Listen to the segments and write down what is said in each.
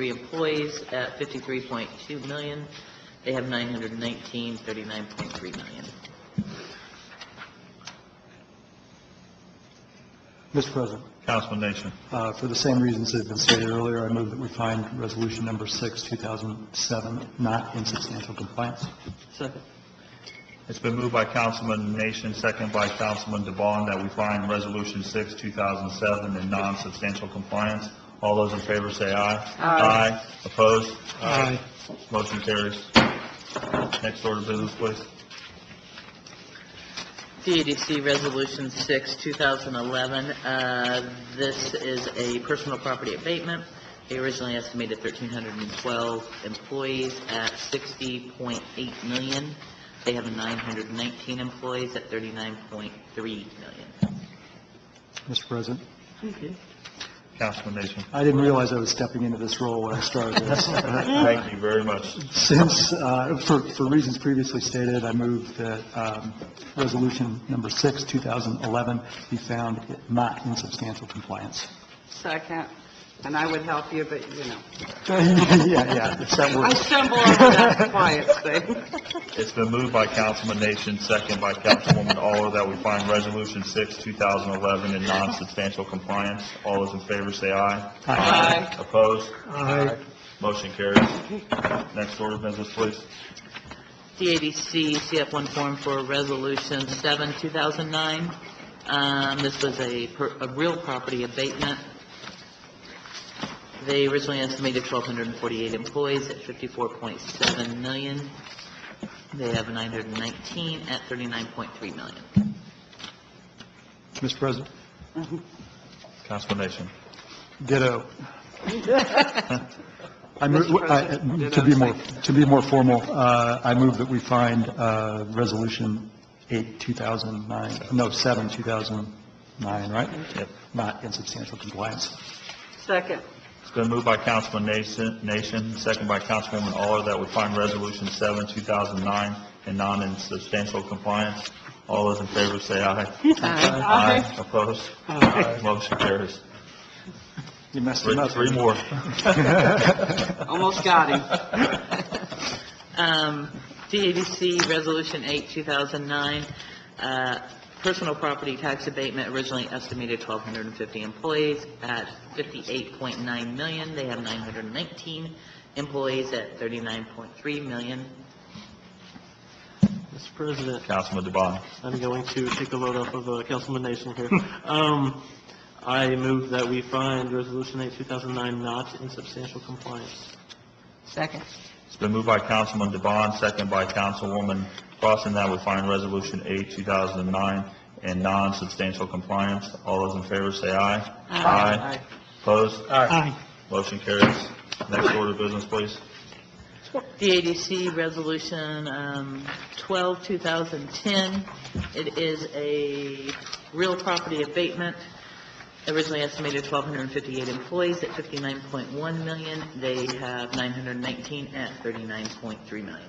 three employees at 53.2 million. They have 919, 39.3 million. Mr. President, Councilman Nation. uh, for the same reasons that have been stated earlier, I move that we find Resolution Number 6, 2007, not in substantial compliance. It's been moved by Councilman Nation, second by Councilman DeBon, that we find Resolution 6, 2007, in non-substantial compliance. All those in favor say aye. Aye. Opposed? Aye. Motion carries. Next order of business, please. CADC Resolution 6, 2011, uh, this is a personal property abatement. They originally estimated 1,312 employees at 60.8 million. They have 919 employees at 39.3 million. Mr. President, Councilman Nation. I didn't realize I was stepping into this role when I started this. Thank you very much. Since, uh, for for reasons previously stated, I move that um, Resolution Number 6, 2011, be found not in substantial compliance. Second, and I would help you, but, you know, Yeah, yeah, it's that I word. stumble over that quiet thing. It's been moved by Councilman Nation, second by Councilwoman Aller, that we find Resolution 6, 2011, in non-substantial compliance. All those in favor say aye. Aye. Opposed? Aye. Motion carries. Next order of business, please. CADC CF1 form for Resolution 7, 2009. Um, This was a per- a real property abatement. They originally estimated 1,248 employees at 54.7 million. They have 919 at 39.3 million. Mr. President, Councilman Nation. ditto. I move, I- uh, to be more, to be more formal, uh, I move that we find uh, Resolution 8, 2009, no, 7, 2009, right? Yep. Not in substantial compliance. Second, It's been moved by Councilman Nation, Nation, second by Councilwoman Aller, that we find Resolution 7, 2009, in non-substantial compliance. All those in favor say aye. Aye. Opposed? Motion carries. You messed Three- it up. Three more. almost got him. Um, CADC Resolution 8, 2009, uh, personal property tax abatement originally estimated 1,250 employees at 58.9 million. They have 919 employees at 39.3 million. Mr. President, Councilman DeBon. I'm going to take a load off of uh, Councilman Nation here. Um, I move that we find Resolution 8, 2009 not in substantial compliance. Second. It's been moved by Councilman DeBon, second by Councilwoman Crossen, that we find Resolution 8, 2009, in non-substantial compliance. All those in favor say aye. Aye. Opposed? Aye. Motion carries. Next order of business, please. CADC Resolution um, 12, 2010, it is a real property abatement, originally estimated 1,258 employees at 59.1 million, they have 919 at 39.3 million.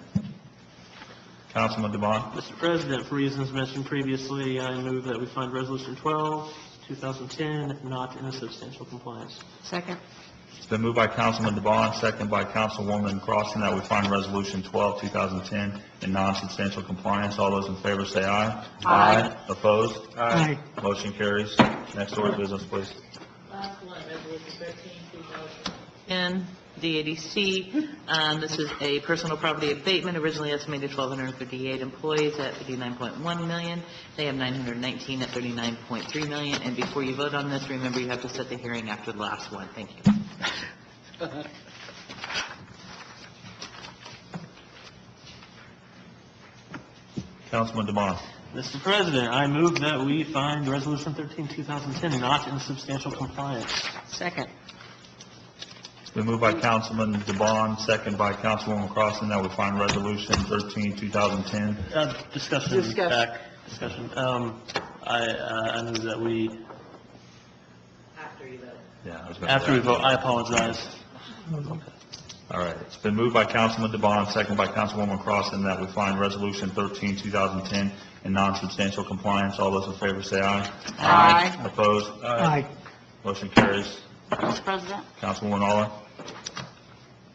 Councilman DeBon. Mr. President, for reasons mentioned previously, I move that we find Resolution 12, 2010 not in substantial compliance. Second. It's been moved by Councilman DeBon, second by Councilwoman Crossen, that we find Resolution 12, 2010, in non-substantial compliance. All those in favor say aye. Aye. Opposed? Aye. Motion carries. Next order of business, please. Last one, Resolution 13, 2010, DADC. Um, This is a personal property abatement, originally estimated 1,258 employees at 59.1 million. They have 919 at 39.3 million. And before you vote on this, remember you have to set the hearing after the last one. Thank you. Councilman DeBon. Mr. President, I move that we find Resolution 13, 2010 not in substantial compliance. Second. It's been moved by Councilman DeBon, second by Councilwoman Crossen, that we find Resolution 13, 2010. Uh, Discussion Discussion. back, discussion. Um, I, uh, I move that we, After you vote. Yeah, I was gonna- after we vote, I apologize. All right. It's been moved by Councilman DeBon, second by Councilwoman Crossen, that we find Resolution 13, 2010 in non-substantial compliance. All those in favor say aye. Aye. Opposed? Aye. Motion carries. Mr. President, Councilwoman Aller?